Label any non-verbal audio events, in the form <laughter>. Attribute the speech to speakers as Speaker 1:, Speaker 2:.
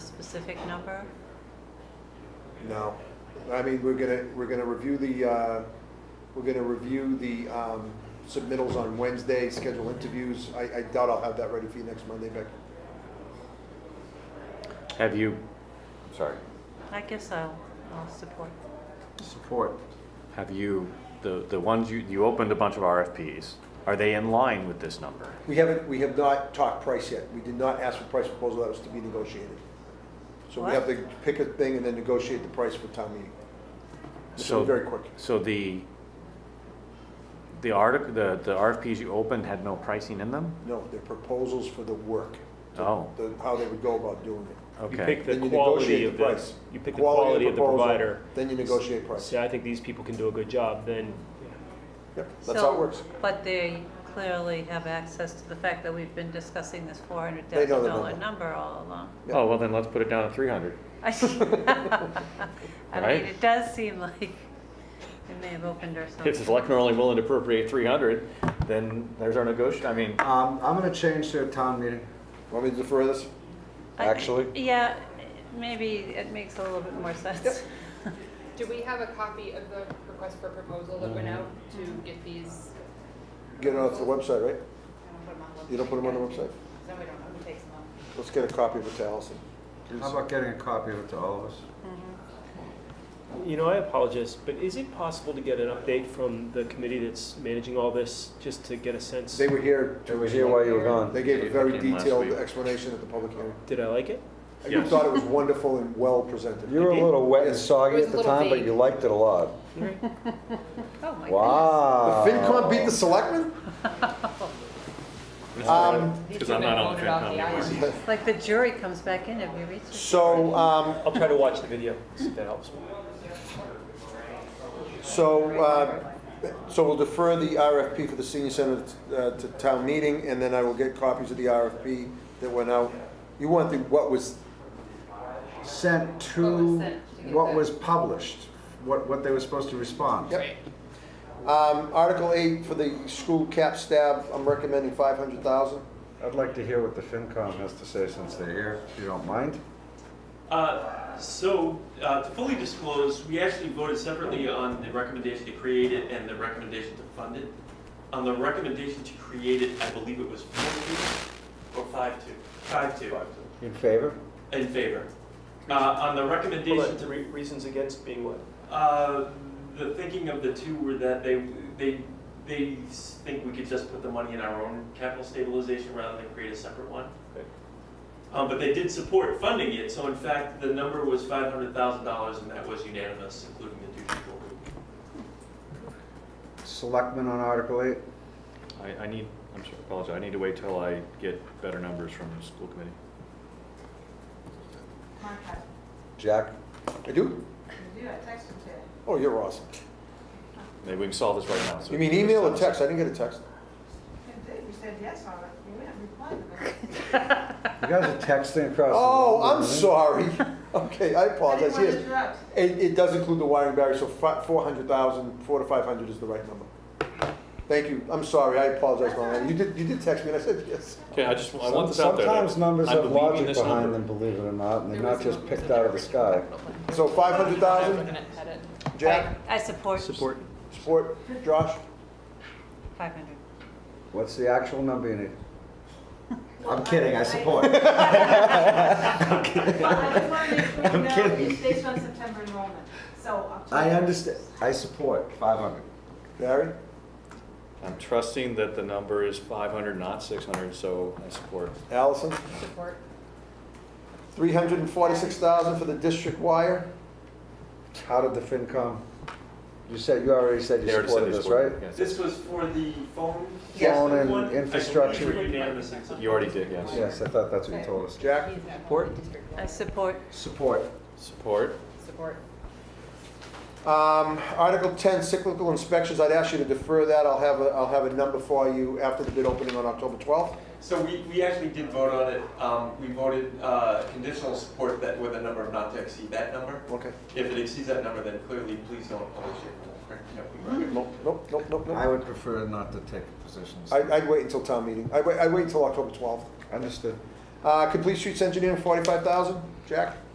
Speaker 1: specific number?
Speaker 2: No, I mean, we're gonna, we're gonna review the, uh, we're gonna review the um, submittals on Wednesday, schedule interviews. I I doubt I'll have that ready for you next Monday, Becky.
Speaker 3: Have you, I'm sorry,
Speaker 1: I guess I'll, I'll support.
Speaker 4: Support.
Speaker 3: have you, the, the ones you, you opened a bunch of RFPs, are they in line with this number?
Speaker 2: We haven't, we have not talked price yet. We did not ask for price proposal, that was to be negotiated. So we have to pick a thing and then negotiate the price for town meeting. This will
Speaker 3: So
Speaker 2: be very quick.
Speaker 3: So the, the article, the, the RFPs you opened had no pricing in them?
Speaker 2: No, they're proposals for the work,
Speaker 3: Oh,
Speaker 2: the- how they would go about doing it.
Speaker 5: You
Speaker 3: okay.
Speaker 5: pick the
Speaker 2: Then you
Speaker 5: quality
Speaker 2: negotiate
Speaker 5: of
Speaker 2: the
Speaker 5: the,
Speaker 2: price.
Speaker 5: you pick the quality of the
Speaker 2: proposal,
Speaker 5: provider.
Speaker 2: Then you negotiate price.
Speaker 5: Say, I think these people can do a good job, then
Speaker 2: Yep, that's how it
Speaker 1: So-
Speaker 2: works.
Speaker 1: But they clearly have access to the fact that we've been discussing this four hundred
Speaker 2: They know
Speaker 1: thousand
Speaker 2: the
Speaker 1: dollar
Speaker 2: number.
Speaker 1: number all
Speaker 2: <laughs>
Speaker 1: along.
Speaker 2: Yeah.
Speaker 3: Oh, well then let's put it down at three hundred.
Speaker 1: I
Speaker 3: Right?
Speaker 1: mean, it does seem like they may have opened or
Speaker 3: If the
Speaker 1: something.
Speaker 3: selectmen are only willing to appropriate three hundred, then there's our negotiation, I mean,
Speaker 4: Um, I'm gonna change to a town meeting.
Speaker 2: Want me to defer this?
Speaker 1: I-
Speaker 3: actually-
Speaker 1: Yeah, maybe it makes a little bit more sense.
Speaker 6: Do we have a copy of the request for proposal that went out to get these?
Speaker 2: Get it off the website, right? You don't put them on the
Speaker 6: website?
Speaker 2: website?
Speaker 6: No, we don't know who takes them off.
Speaker 2: Let's get a copy of it to Allison.
Speaker 4: How about getting a copy of it to all of us?
Speaker 5: You know, I apologize, but is it possible to get an update from the committee that's managing all this, just to get a sense?
Speaker 2: They were here.
Speaker 4: It was here while you were gone.
Speaker 2: They gave a very
Speaker 3: Came last
Speaker 2: detailed
Speaker 3: week.
Speaker 2: explanation at the public hearing.
Speaker 5: Did I like it?
Speaker 2: You thought it was wonderful and well presented.
Speaker 7: You were a little wet and
Speaker 6: It
Speaker 7: soggy
Speaker 6: was
Speaker 7: at
Speaker 6: a
Speaker 7: the
Speaker 6: little
Speaker 7: time, but
Speaker 6: vague.
Speaker 7: you liked it a lot.
Speaker 1: <laughs> Oh, my goodness.
Speaker 2: The
Speaker 7: Wow.
Speaker 2: FinCon beat the <laughs> selectmen? Um,
Speaker 6: Because I'm not on the anymore.
Speaker 1: It's Like the jury comes back in, have you reached?
Speaker 2: so, um,
Speaker 5: I'll try to watch the video, see if that helps.
Speaker 2: so, uh, so we'll defer the RFP for the senior center uh, to town meeting, and then I will get copies of the RFP that went out. You want the, what was,
Speaker 4: Sent
Speaker 6: What
Speaker 4: to,
Speaker 6: was sent to get
Speaker 4: what
Speaker 6: that.
Speaker 4: was published, what, what they were supposed to respond.
Speaker 2: yep. Um, Article eight for the school cap stab, I'm recommending five hundred thousand.
Speaker 4: I'd like to hear what the FinCom has to say since they're here, if you don't mind.
Speaker 8: Uh, So, uh, to fully disclose, we actually voted separately on the recommendation to create it and the recommendation to fund it. On the recommendation to create it, I believe it was four-two or five-two? Five-two
Speaker 7: In favor?
Speaker 8: in favor. Uh, On the
Speaker 5: Hold
Speaker 8: recommendation
Speaker 5: on,
Speaker 8: to,
Speaker 5: re- reasons against being what?
Speaker 8: uh, the thinking of the two were that they, they, they s- think we could just put the money in our own capital stabilization rather than create a separate one.
Speaker 5: Okay.
Speaker 8: Um, But they did support funding it, so in fact, the number was $500,000 and that was unanimous, including the two people who
Speaker 4: Selectmen on Article eight?
Speaker 3: I, I need, I'm sorry, apologize, I need to wait till I get better numbers from the school committee.
Speaker 7: Jack?
Speaker 2: I do? Oh, you're awesome.
Speaker 3: Maybe we can solve this right now. so-
Speaker 2: You mean email or text? I didn't get a text.
Speaker 9: You said yes on it, you went and replied to it.
Speaker 4: You guys are texting across. the
Speaker 2: Oh,
Speaker 4: room,
Speaker 2: I'm
Speaker 4: right?
Speaker 2: sorry. Okay, I
Speaker 4: Oh,
Speaker 9: I didn't
Speaker 2: apologize,
Speaker 9: want to
Speaker 2: yes.
Speaker 9: interrupt.
Speaker 2: It, it does include the wiring barrier, so fi- 400,000, 4 to 500 is the right number. Thank you, I'm sorry, I apologize, my man. You did, you did text me, and I said yes.
Speaker 3: Okay, I just, I want this out there. that
Speaker 7: Sometimes numbers
Speaker 3: I'm
Speaker 7: have
Speaker 3: believing
Speaker 7: logic
Speaker 3: this
Speaker 7: behind
Speaker 3: number.
Speaker 7: them, believe it or not, and they're
Speaker 6: There
Speaker 7: not
Speaker 6: was
Speaker 7: just
Speaker 6: no-
Speaker 7: picked out of the sky.
Speaker 2: So 500,000,
Speaker 6: Looking at it.
Speaker 2: Jack,
Speaker 1: I support
Speaker 5: Support.
Speaker 2: support, Josh?
Speaker 1: five hundred.
Speaker 7: What's the actual number you need?
Speaker 4: I'm kidding, I
Speaker 9: <laughs>
Speaker 4: support.
Speaker 9: Well, I just want to make
Speaker 4: <laughs>
Speaker 9: sure
Speaker 4: I'm
Speaker 9: you know,
Speaker 4: kidding.
Speaker 9: it's based on September enrollment, so.
Speaker 4: I understand, I support five hundred.
Speaker 2: Barry?
Speaker 3: I'm trusting that the number is five hundred, not six hundred, so I support.
Speaker 2: Allison?
Speaker 6: Support.
Speaker 2: 346,000 for the district wire?
Speaker 7: How did the FinCom? You said, you already said
Speaker 3: They
Speaker 7: you
Speaker 3: already said
Speaker 7: supported
Speaker 3: they
Speaker 7: this, right?
Speaker 3: supported it, yes.
Speaker 8: This was for the phone?
Speaker 7: Yes. Phone and
Speaker 8: one? I believe
Speaker 7: infrastructure.
Speaker 8: we were unanimous on something.
Speaker 3: You already did, yes.
Speaker 7: Yes, I thought that's what you told us.
Speaker 2: Jack?
Speaker 3: Support?
Speaker 1: I support.
Speaker 4: Support.
Speaker 3: Support.
Speaker 6: Support.
Speaker 2: Um, Article 10, cyclical inspections, I'd ask you to defer that, I'll have, a will have a number for you after the bid opening on October 12th.
Speaker 8: So we, we actually did vote on it, um, we voted, uh, conditional support that with a number of not to exceed that number.
Speaker 2: Okay.
Speaker 8: If it exceeds that number, then clearly, please don't publish it.
Speaker 2: Nope, nope, nope, nope,
Speaker 4: I
Speaker 2: nope.
Speaker 4: would prefer not to take positions.
Speaker 2: I- I'd wait until town meeting, I'd wait, I'd wait until October 12th.
Speaker 4: Understood.
Speaker 2: Uh, complete streets engineering, forty-five thousand, Jack?